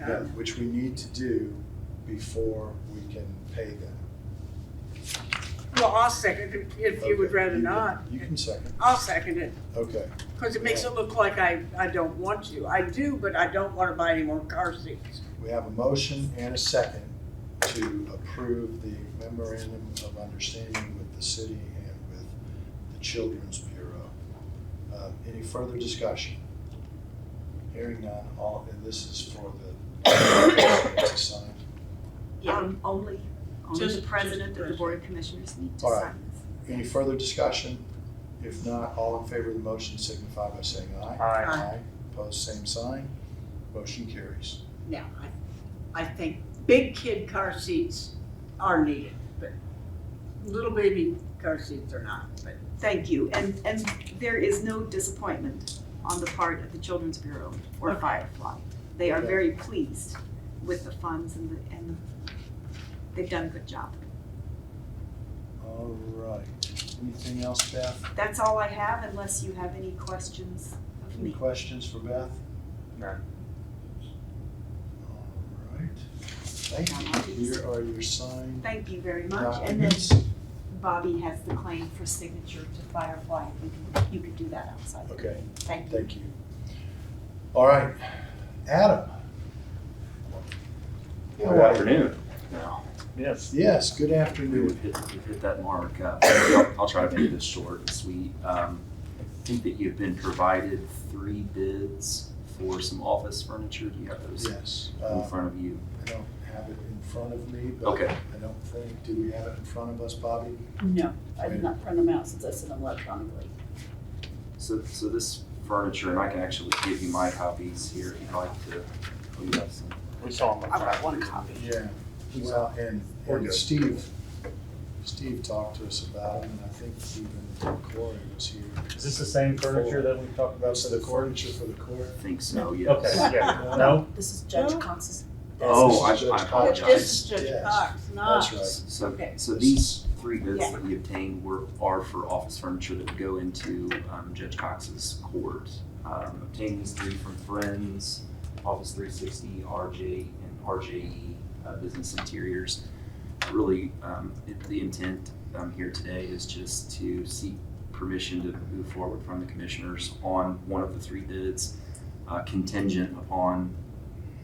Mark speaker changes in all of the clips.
Speaker 1: Yeah,
Speaker 2: that.
Speaker 1: which we need to do before we can pay them.
Speaker 2: Well, I'll second it if you would
Speaker 1: Okay,
Speaker 2: rather
Speaker 1: you can-
Speaker 2: not.
Speaker 1: You can second,
Speaker 2: I'll second it,
Speaker 1: okay.
Speaker 2: because it makes it look like I, I don't want to. I do, but I don't want to buy any more car seats.
Speaker 1: We have a motion and a second to approve the memorandum of understanding with the city and with the Children's Bureau. Uh, Any further discussion? Hearing none, all, and this is for the, to sign.
Speaker 3: Yeah,
Speaker 4: Um, only, only
Speaker 3: Just-
Speaker 4: the
Speaker 3: just
Speaker 4: president of the
Speaker 3: president.
Speaker 4: board of commissioners need to
Speaker 1: All right.
Speaker 4: sign this.
Speaker 1: Any further discussion? If not, all in favor of the motion signify by saying aye.
Speaker 2: Aye.
Speaker 1: Opposed, same sign. Motion carries.
Speaker 2: Now, I, I think big kid car seats are needed, but little baby car seats are not, but.
Speaker 4: Thank you, and, and there is no disappointment on the part of the Children's Bureau or
Speaker 2: Okay.
Speaker 4: Firefly. They are
Speaker 1: Okay.
Speaker 4: very pleased with the funds and the, and they've done a good job.
Speaker 1: All right. Anything else, Beth?
Speaker 4: That's all I have unless you have any questions of
Speaker 1: Any
Speaker 4: me.
Speaker 1: questions for Beth?
Speaker 3: None.
Speaker 1: All right. Thank you. Here are your signed
Speaker 4: Thank you very
Speaker 1: Uh,
Speaker 4: much, and then
Speaker 1: documents.
Speaker 4: Bobby has the claim for signature to Firefly, you can, you could do that outside.
Speaker 1: Okay,
Speaker 4: Thank you.
Speaker 1: thank you. All right, Adam. How
Speaker 5: Good
Speaker 1: are you?
Speaker 5: afternoon. Yes.
Speaker 1: Yes, good
Speaker 5: We
Speaker 1: afternoon.
Speaker 5: have hit, we've hit that mark. Uh, I'll I'll try to make this short and sweet. Um, I think that you've been provided three bids for some office furniture. Do you have those
Speaker 1: Yes.
Speaker 5: in
Speaker 1: uh,
Speaker 5: front of you?
Speaker 1: I don't have it in front of me,
Speaker 6: Uh,
Speaker 1: but
Speaker 5: Okay.
Speaker 1: I don't think, do we have it in front of us, Bobby?
Speaker 7: No, I did not print them out since I sent them electronically.
Speaker 5: So, so this furniture, and I can actually give you my copies here if you'd like to. Oh, you have some.
Speaker 3: We saw them.
Speaker 7: I got one copy.
Speaker 1: Yeah. Well, and, and Steve, Steve talked to us about it, and I think even Corey was here.
Speaker 6: Is this the same furniture that we talked about?
Speaker 1: That's the furniture for the court.
Speaker 5: I think so,
Speaker 6: Okay,
Speaker 5: yes.
Speaker 6: yeah, no?
Speaker 7: This is Judge Cox's.
Speaker 5: Oh, I-
Speaker 1: This is Judge
Speaker 5: I
Speaker 2: But
Speaker 1: Cox.
Speaker 5: apologize.
Speaker 2: this is
Speaker 1: Yes,
Speaker 2: Judge Cox, not.
Speaker 1: That's right.
Speaker 5: So,
Speaker 2: Okay.
Speaker 5: so these three bids that we obtained were, are for office furniture that would go into um, Judge Cox's court. Um, Obtained these three from Friends, Office three sixty, RJ, and RJE uh, Business Interiors. Really, um, it- the intent um, here today is just to seek permission to move forward from the commissioners on one of the three bids uh, contingent upon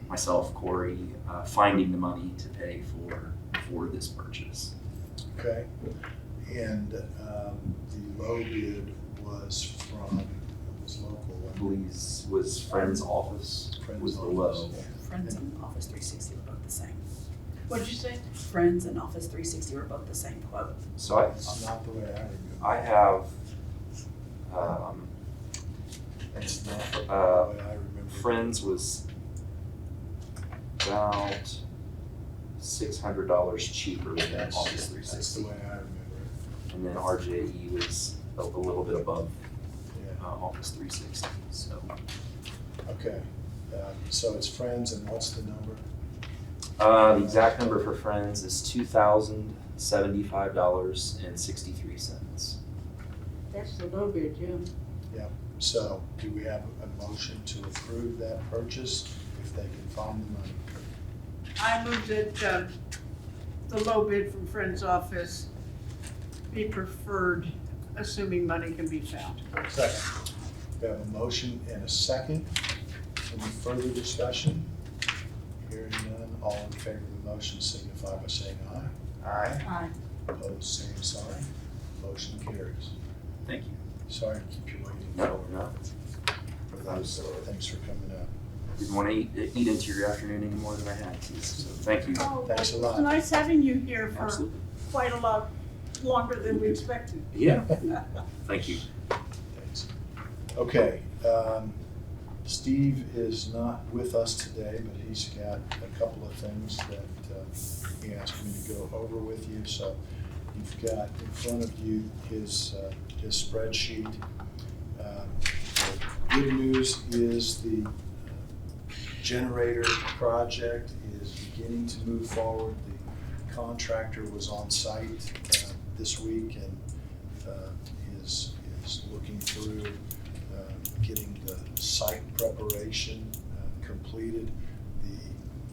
Speaker 5: myself, Corey, uh, finding the money to pay for, for this purchase.
Speaker 1: Okay. And, um, the low bid was from, it was local.
Speaker 5: I believe was Friend's office
Speaker 1: Friends
Speaker 5: was the
Speaker 1: Office.
Speaker 5: low.
Speaker 7: Friends and Office three sixty were both the same.
Speaker 2: What'd you say?
Speaker 7: Friends and Office three sixty were both the same quote.
Speaker 5: So I,
Speaker 1: It's not the way I remember.
Speaker 5: I have, um,
Speaker 1: It's not the way
Speaker 5: Uh,
Speaker 1: I remember.
Speaker 5: Friends was about six hundred dollars cheaper than
Speaker 1: That's,
Speaker 5: Office three
Speaker 1: that's the
Speaker 5: sixty.
Speaker 1: way I remember
Speaker 5: And then RJE was a, a little bit above,
Speaker 1: it,
Speaker 5: uh, Office three sixty, so.
Speaker 1: yeah, okay. Uh, So it's Friends and what's the number?
Speaker 5: Uh, the exact number for Friends is two thousand seventy-five dollars and sixty-three cents.
Speaker 2: That's the low bid, Jim.
Speaker 1: So do we have a motion to approve that purchase if they can find the money?
Speaker 2: I move that, um, the low bid from Friends Office be preferred, assuming money can be found.
Speaker 6: Second.
Speaker 1: We have a motion and a second. Any further discussion? Hearing none, all in favor of the motion signify by saying aye.
Speaker 6: Aye.
Speaker 7: Aye.
Speaker 1: Opposed, same sign. Motion carries.
Speaker 5: Thank you.
Speaker 1: Sorry to keep you waiting.
Speaker 5: No, no.
Speaker 1: Thanks thanks for coming up.
Speaker 5: Didn't want to eat, eat into your afternoon any more than I had to, so thank you.
Speaker 2: Oh,
Speaker 1: Thanks a lot.
Speaker 2: It's nice having you here for quite a lot longer than we expected.
Speaker 5: Yeah, thank you.
Speaker 1: Thanks. Okay, um, Steve is not with us today, but he's got a couple of things that, uh, he asked me to go over with you, so you've got in front of you his, uh, his spreadsheet. Uh, the Good news is the uh, generator project is beginning to move forward. The contractor was on site, uh, this week and uh, is, is looking through uh, getting the site preparation uh, completed.